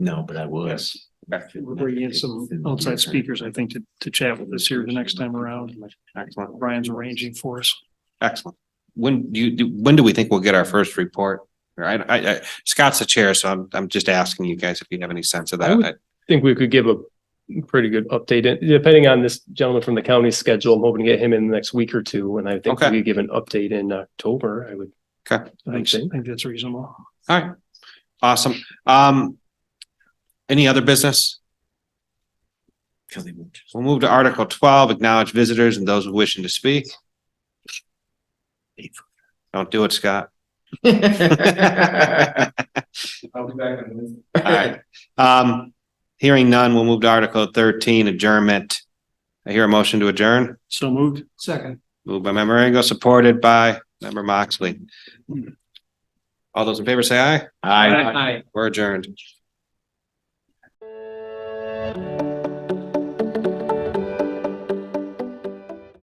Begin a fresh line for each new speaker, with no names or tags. No, but I was.
We're bringing in some outside speakers, I think, to, to chat with us here the next time around.
Excellent,
Brian's arranging for us.
excellent. When do you, do- when do we think we'll get our first report? I, I, I, Scott's the chair, so I'm, I'm just asking you guys if you have any sense of
I
that.
would- think we could give a pretty good update, And depending on this gentleman from the county schedule. I'm hoping to get him in the next week or two, and I think
Okay.
we could give an update in October, I would.
Okay.
I
I
think,
think
I
so.
think that's reasonable.
All right, awesome. Um, any other business? We'll move to Article twelve, acknowledge visitors and those wishing to speak. Don't do it, Scott.
I'll be back on this.
All right. Um, hearing none, we'll move to Article thirteen, adjournment. I hear a motion to adjourn,
So moved. Second.
moved by member Ringo, supported by member Moxley. All those in favor say aye. We're adjourned.